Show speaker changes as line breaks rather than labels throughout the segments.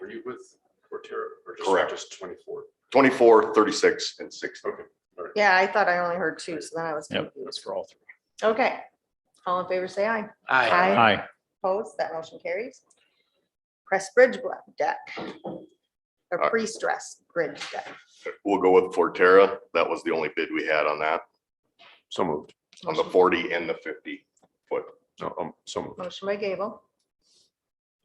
were you with Cortera or just-
Correct.
just twenty-four?
24, 36, and 60.
Yeah, I thought I only heard two, so then I was
Yep.
confused.
for all three.
Okay. All in favor, say aye.
Aye.
Aye.
Opposed, that motion carries. Press bridge block deck. Or
Aye.
pre-stressed bridge deck.
We'll go with Forterra. That was the only bid we had on that,
So moved.
on the 40 and the 50.
No, um, so moved.
Motion by Gable,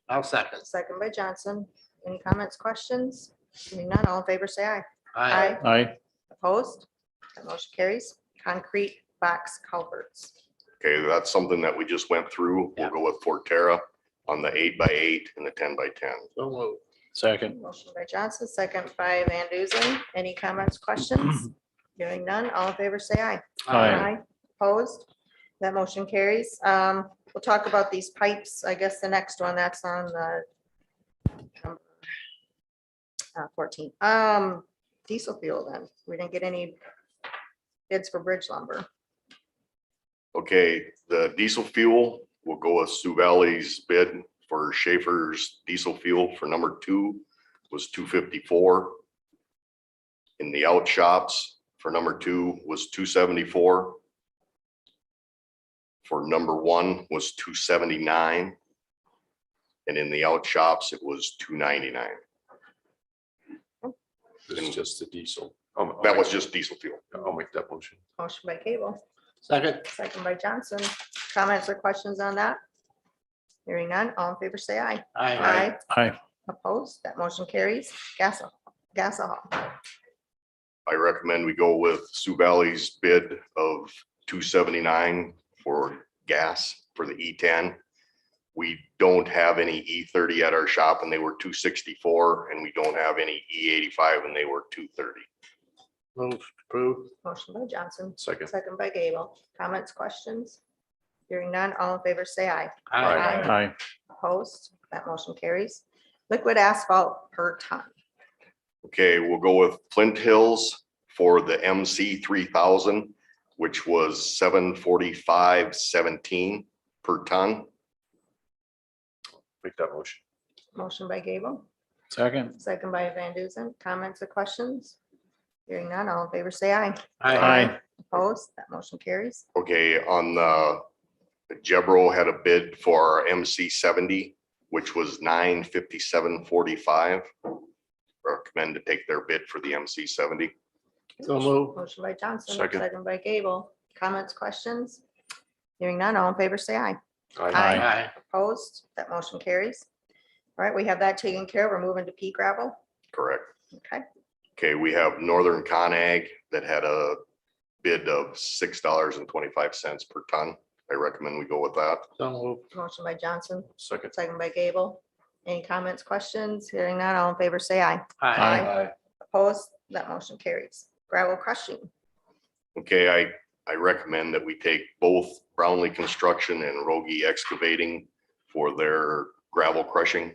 I'll second.
second by Johnson. Any comments, questions? Seeing none, all in favor, say aye.
Aye.
Aye.
Opposed, that motion carries. Concrete box culverts.
Okay, that's something that we just went through. We'll
Yeah.
go with Forterra on the eight by eight and the 10 by 10.
So moved.
Second.
Motion by Johnson, second by Van Duzen. Any comments, questions? Hearing none, all in favor, say aye.
Aye.
Opposed? That motion carries. Um, we'll talk about these pipes. I guess the next one, that's on the um, uh, fourteen, um, diesel fuel then. We didn't get any bids for bridge lumber.
Okay, the diesel fuel, we'll go with Sioux Valley's bid for Schaefer's diesel fuel for number two was two fifty-four. In the out shops for number two was two seventy-four. For number one was two seventy-nine. And in the out shops, it was two ninety-nine.
This is just the diesel. Um, I'll
That was
make-
just diesel fuel.
I'll make that motion.
Motion by Cable,
Second.
second by Johnson. Comments or questions on that? Hearing none, all in favor, say aye.
Aye.
Aye.
Opposed? That motion carries. Gas, gas
I recommend we go with Sioux Valley's bid of two seventy-nine for gas for the E ten. We don't have any E thirty at our shop and they were two sixty-four and we don't have any E eighty-five and they were two thirty.
Move approved.
Motion by Johnson,
Second.
Second by Gable. Comments, questions? Hearing none, all in favor, say aye.
Aye.
Aye.
Aye.
Opposed, that motion carries. Liquid asphalt per ton.
Okay, we'll go with Flint Hills for the MC three thousand, which was seven forty-five seventeen per ton.
Make that motion.
Motion by Gable,
Second.
second by Van Duzen. Comments or questions? Hearing none, all in favor, say aye.
Aye.
Opposed, that motion carries.
Okay, on the, Jebro had a bid for MC seventy, which was nine fifty-seven forty-five. Recommend to take their bid for the MC seventy.
So moved.
Motion by Johnson,
Second.
second by Gable. Comments, questions? Hearing none, all in favor, say aye.
Aye.
Aye.
Opposed, that motion carries. All right, we have that taken care of. We're moving to pea gravel.
Correct.
Okay,
Okay, we have Northern Conag that had a bid of six dollars and twenty-five cents per ton. I recommend we go with that.
So moved.
motion by Johnson,
Second.
Second by Gable. Any comments, questions? Hearing none, all in favor, say aye.
Aye.
Opposed, that motion carries. Gravel crushing,
Okay, I, I recommend that we take both Brownlee Construction and Rogie Excavating for their gravel crushing.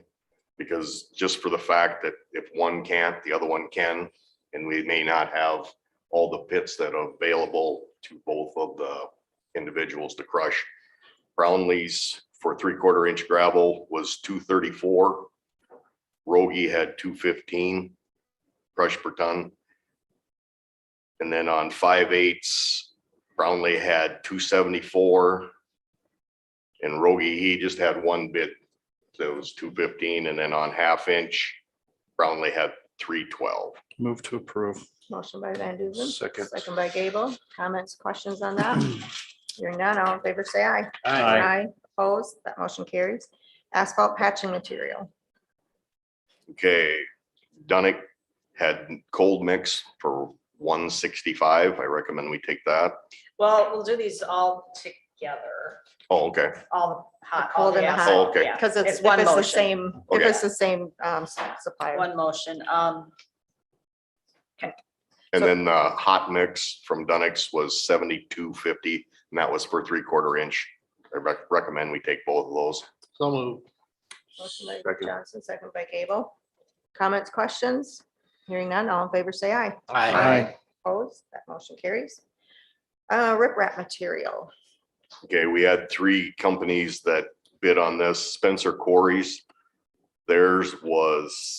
Because just for the fact that if one can't, the other one can, and we may not have all the pits that are available to both of the individuals to crush. Brownlee's for three quarter inch gravel was two thirty-four. Rogie had two fifteen crush per ton. And then on five eights, Brownlee had two seventy-four. And Rogie, he just had one bid, so it was two fifteen, and then on half inch, Brownlee had three twelve.
Move to approve.
motion by Van Duzen.
Second.
Second by Gable. Comments, questions on that? Hearing none, all in favor, say aye.
Aye.
Opposed, that motion carries. Asphalt patching material,
Okay, Dunick had cold mix for one sixty-five, I recommend we take that.
Well, we'll do these all together,
Oh, okay,
all the hot.
The
all
cold and the hot.
Oh, okay.
yeah.
because it's,
It's
if
one
it's the
motion.
same, if
Okay.
it's the same um, s- supplier.
One motion, um,
and
So-
then the hot mix from Dunick's was seventy-two fifty, and that was for three quarter inch. I rec- recommend we take both of those.
So moved.
Motion by
Second.
Johnson, second by Gable. Comments, questions? Hearing none, all in favor, say aye.
Aye.
Opposed, that motion carries. Uh, riprap material,
Okay, we had three companies that bid on this, Spencer Quarries Theirs was